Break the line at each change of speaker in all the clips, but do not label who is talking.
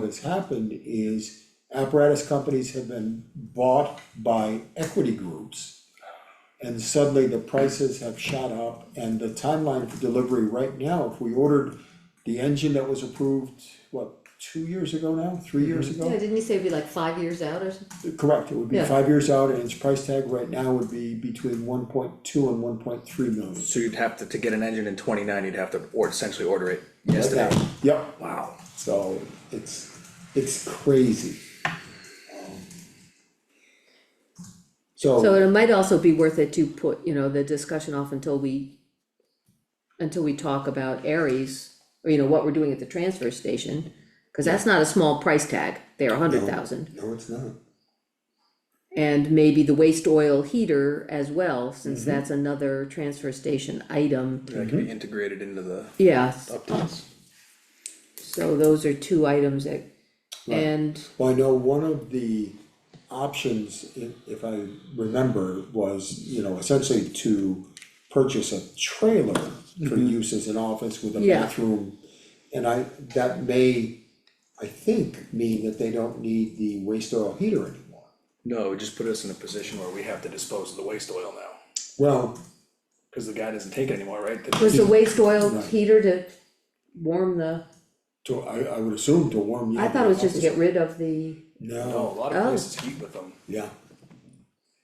that's happened is apparatus companies have been bought by equity groups. And suddenly the prices have shot up and the timeline for delivery right now, if we ordered the engine that was approved, what, two years ago now, three years ago?
Yeah, didn't you say it'd be like five years out or something?
Correct, it would be
Mm-hmm. Yeah.
five years out and its price tag right now would be between one point two and one point three million.
So you'd have to, to get an engine in twenty-nine, you'd have to, or essentially order it yesterday.
Like that. Yep,
Wow.
so it's, it's crazy. Um,
So
So,
it might also be worth it to put, you know, the discussion off until we, until we talk about Aries, or you know, what we're doing at the transfer station. Cause that's not a small price tag, they're a hundred thousand,
no, it's not,
and maybe the waste oil heater as well, since
Mm-hmm.
that's another transfer station item.
That can be integrated into the
Yeah,
updates.
so those are two items that, and,
well, I know one of the options, if, if I remember, was, you know, essentially to purchase a trailer for use as an office with a
Mm-hmm. Yeah.
bathroom. And I, that may, I think, mean that they don't need the waste oil heater anymore.
No, it just put us in a position where we have to dispose of the waste oil now,
Well,
cause the guy doesn't take it anymore, right?
was the waste oil
Right.
heater to warm the,
to, I, I would assume to warm you
I
up
thought
in
it was just to
office.
get rid of the,
No,
No,
a lot of
Oh.
places heat with them,
yeah,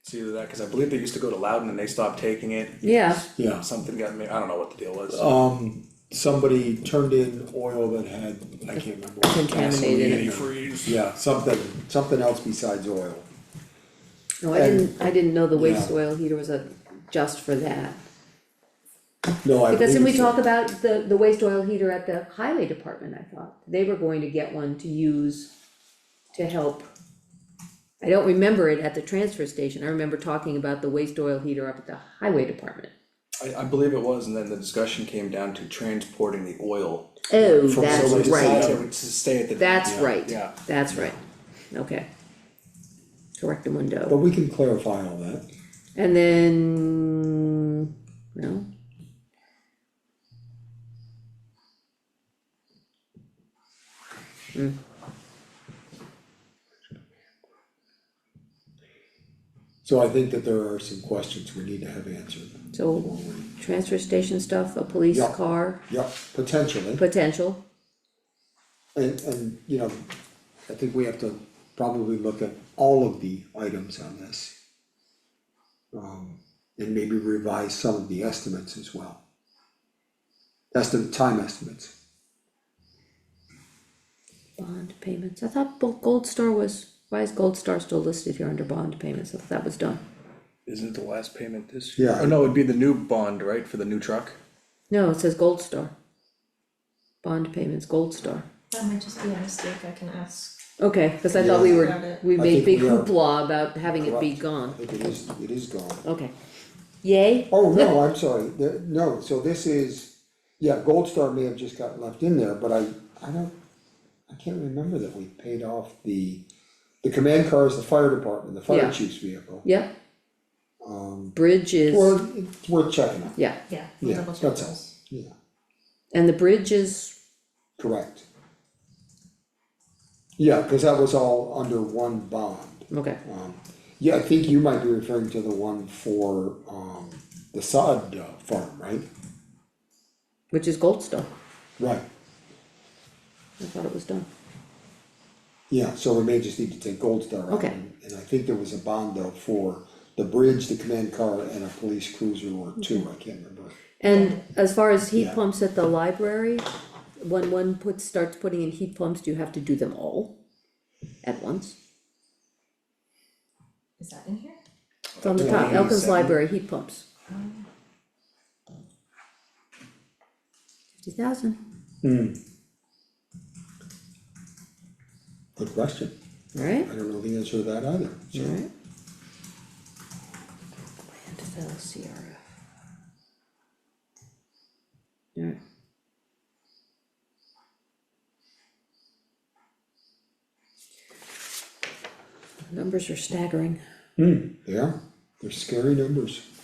it's either that, cause I believe they used to go to Loudon and they stopped taking it.
yeah,
yeah.
Something got me, I don't know what the deal was.
Oh.
Um, somebody turned in oil that had, I can't remember. what,
Contaminated it.
gasoline or-
Antifreeze.
Yeah, something, something else besides oil.
no, I didn't, I didn't know the waste
Yeah.
oil heater was a, just for that.
No, I believe
Because then we
so.
talk about the, the waste oil heater at the highway department, I thought, they were going to get one to use to help. I don't remember it at the transfer station, I remember talking about the waste oil heater up at the highway department.
I, I believe it was, and then the discussion came down to transporting the oil.
Oh,
From
that's
someplace
right,
decided-
To stay at the.
that's
yeah,
right,
Yeah.
that's right, okay. Correct and
But
window,
we can clarify all that.
and then, no,
So I think that there are some questions we need to have answered.
so, transfer station stuff, a police
Yeah.
car,
Yep, potentially,
potential,
and, and, you know, I think we have to probably look at all of the items on this. Um, and maybe revise some of the estimates as well. Estimate, time estimates.
Bond payments, I thought Bo- Gold Star was, why is Gold Star still listed here under bond payments, I thought that was done.
Isn't the last payment this
year?
year? Oh, no, it'd be the new bond, right, for the new truck?
No, it says Gold Star. Bond payments, Gold Star,
That might just be a mistake, I can ask.
okay, cause I thought we
Got
were,
it.
we
I
made
think
big
we are-
hoopla about having it be
Correct. I
gone,
think it is, it is gone.
okay. Yay,
Oh, no, I'm sorry, The- no, so this is, yeah, Gold Star may have just got left in there, but I, I don't, I can't remember that we paid off the, the command car is the fire department, the fire
Yeah.
chief's vehicle.
yep,
Um,
bridge is,
or it's worth checking out,
yeah,
Yeah. we'll
yeah,
double check
that's all,
those.
yeah,
and the bridge is,
correct. Yeah, cause that was all under one bond,
okay,
um, yeah, I think you might be referring to the one for, um, the sod uh, farm, right?
which is Gold Star,
Right,
I thought it was done,
Yeah, so we may just need to take Gold Star out,
Okay.
and and I think there was a bond though for the bridge, the command car, and a police cruiser or two, I can't remember.
And as far as heat
Yeah.
pumps at the library, when one puts, starts putting in heat pumps, do you have to do them all at once?
Is that in here?
It's on the top, Elkins
27.
Library, heat pumps.
Oh.
Fifty thousand,
Good question,
alright,
I don't know the answer to that either, so,
alright. Landfill CRF. Alright, numbers are staggering.
yeah, they're scary numbers.